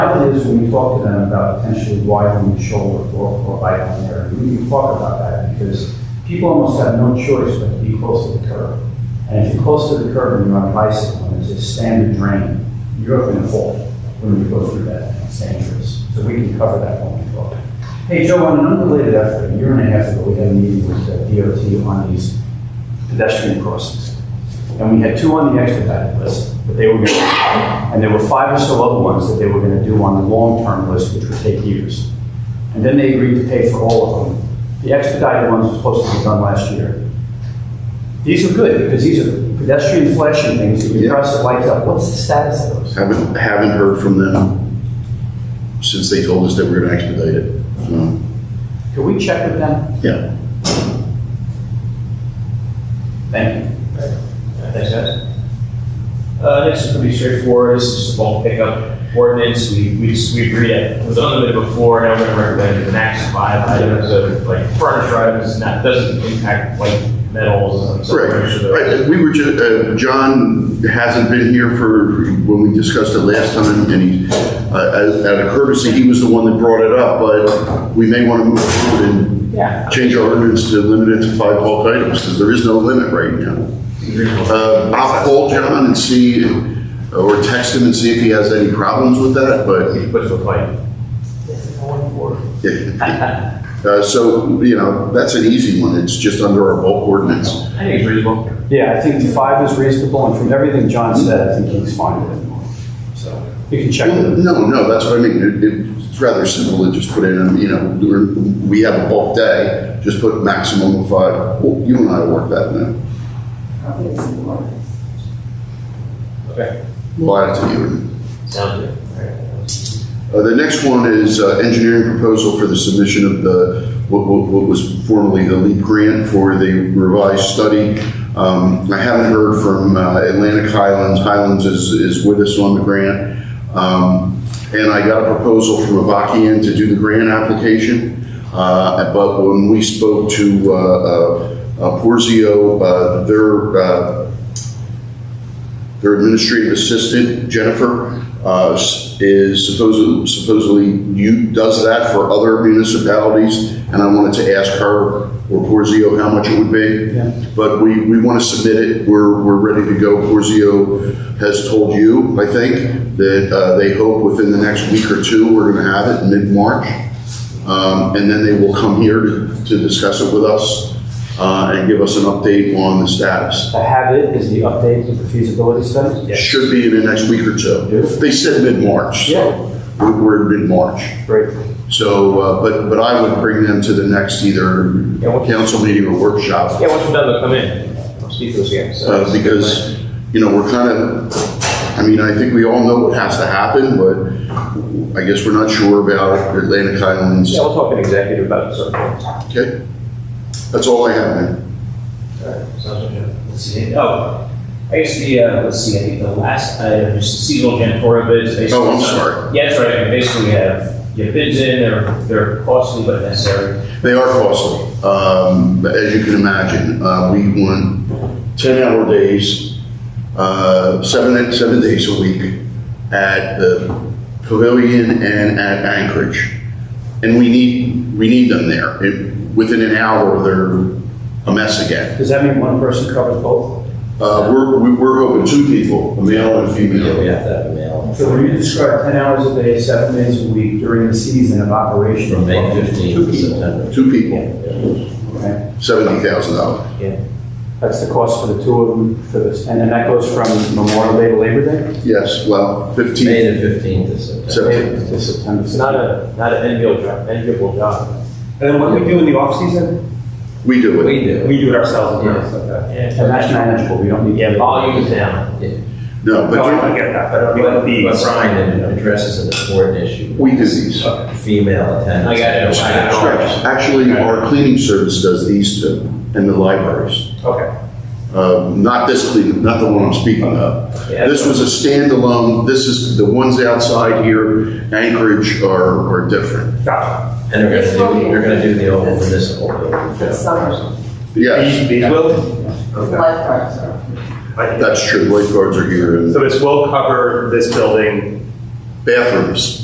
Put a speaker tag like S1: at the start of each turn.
S1: is when we talk to them about potentially widening the shoulder or, or widening there, we need to talk about that because people almost have no choice but to be close to the curb. And if you're close to the curb and you're on a bicycle and there's a standard drain, you're going to fall when we go through that. It's dangerous. So we can cover that when we talk. Hey, Joe, on an unrelated effort, a year and a half ago, we had a meeting with uh, DOT on these pedestrian crossings. And we had two on the expedited list that they were going to, and there were five or so other ones that they were going to do on the long-term list, which would take years. And then they agreed to pay for all of them. The expedited ones were supposed to be done last year. These are good, because these are pedestrian flashing things, that you press the lights up, what's the status of those?
S2: Haven't, haven't heard from them since they told us that we are gonna expedite it. So,
S1: Can we check with them?
S2: yeah.
S1: Thank you.
S3: Thanks, guys. Uh, next is pretty straightforward, this is just a bulk pickup ordinance, we, we, just- we agreed that it was unlimited before, now we're gonna recommend the max five items of like furniture items, and that doesn't impact like metals and stuff.
S2: Right, right, we were just, uh, John hasn't been here for, when we discussed it last time, and he, uh, as- out of courtesy, he was the one that brought it up, but we may wanna move forward and
S3: Yeah.
S2: change our ordinance to limit it to five bulk items, because there is no limit right now. Uh, I'll call John and see, or text him and see if he has any problems with that, but
S3: Puts the fight.
S2: Uh, So, you know, that's an easy one, it's just under our bulk ordinance.
S3: I think it's reasonable.
S1: Yeah, I think the five is reasonable, and from everything John said, I think he's fine with it. So, you can check with them.
S2: No, no, that's what I mean, It- it's rather simple to just put in, you know, we're- we have a bulk day, just put maximum of five. Well, You and I work that now,
S3: Okay.
S2: we'll add it to the ordinance.
S3: Sounds good.
S2: Uh, The next one is uh, engineering proposal for the submission of the, what what- what was formerly the LEAP grant for the revised study. Um, I haven't heard from uh, Atlantic Highlands, Highlands is, is with us on the grant. Um, And I got a proposal from Avakian to do the grant application. Uh, But when we spoke to uh, uh, uh, Porzio, uh, their uh, their administrative assistant, Jennifer, uh, s- is supposedly, supposedly you, does that for other municipalities, and I wanted to ask her or Porzio how much it would be.
S1: Yeah.
S2: But we, we want to submit it, we're, we're ready to go. Porzio has told you, I think, that uh, they hope within the next week or two, we're going to have it, mid-March. Um, And then they will come here to to discuss it with us uh, and give us an update on the status.
S1: To have it is the update of the feasibility study?
S2: Should be in the next week or two.
S1: Yes.
S2: They said mid-March,
S1: Yeah.
S2: so we're- we're in mid-March.
S1: Great.
S2: So, uh, but, but I would bring them to the next either
S3: Yeah, what-
S2: council meeting or workshop.
S3: Yeah, once we're done, they'll come in, I'll speak to those guys. so-
S2: uh, Because, you know, we're kind of, I mean, I think we all know what has to happen, but I guess we're not sure about Atlantic Highlands.
S3: Yeah, we'll talk in executive about it, so. All
S2: Okay? That's all I have, man.
S3: right, Sounds good. Let's see, oh, I guess the, uh, let's see, I think the last item is seasonal janitorial bids. based
S2: Oh, I'm
S3: on-
S2: sorry.
S3: Yeah, that's right, I mean, basically we have, you have bids in, they're, they're costly but necessary.
S2: They are costly, um, as you can imagine. Uh, we want ten-hour days, uh, seven, seven days a week at the pavilion and at Anchorage. And we need, we need them there. It- Within an hour, they're a mess again.
S1: Does that mean one person covers both?
S2: Uh, we're, we- we're hoping two people, a male and a female.
S1: So when you describe ten hours a day, seven days a week during the season of operation.
S4: From May
S1: Two
S4: 15th to
S1: people,
S4: September.
S2: Two people,
S1: okay.
S2: seventy thousand dollars.
S1: That's the cost for the two of them for this. And then that goes from Memorial Day to Labor Day?
S2: Yes, well,
S4: May
S2: fifteen,
S4: the 15th to September.
S2: seventeen.
S1: To September.
S3: It's not a, not an enviable job, enviable job.
S1: And then what do we do in the off-season?
S2: We do it.
S4: We do.
S3: We do it ourselves,
S4: yes,
S1: And
S3: Yeah,
S1: that's manageable, we don't need.
S3: yeah, volume is down.
S2: No, but
S3: I
S2: there-
S3: get that, but I mean,
S4: But
S3: the-
S4: but Brian it addresses an important issue,
S2: we do these.
S4: female
S3: I
S4: attendance.
S3: got it.
S2: Stripes. Actually, our cleaning service does these two and the libraries.
S3: Okay.
S2: Uh, Not this clean, not the one I'm speaking of.
S3: Yeah.
S2: This was a standalone, this is, the ones outside here, Anchorage are, are different.
S3: Gotcha.
S4: And they're gonna do, they're gonna do the old municipal building.
S5: The summer,
S2: Yes,
S3: These will?
S5: the lifeguards are.
S2: that's true, lifeguards are here and
S6: So this will cover this building
S2: bathrooms.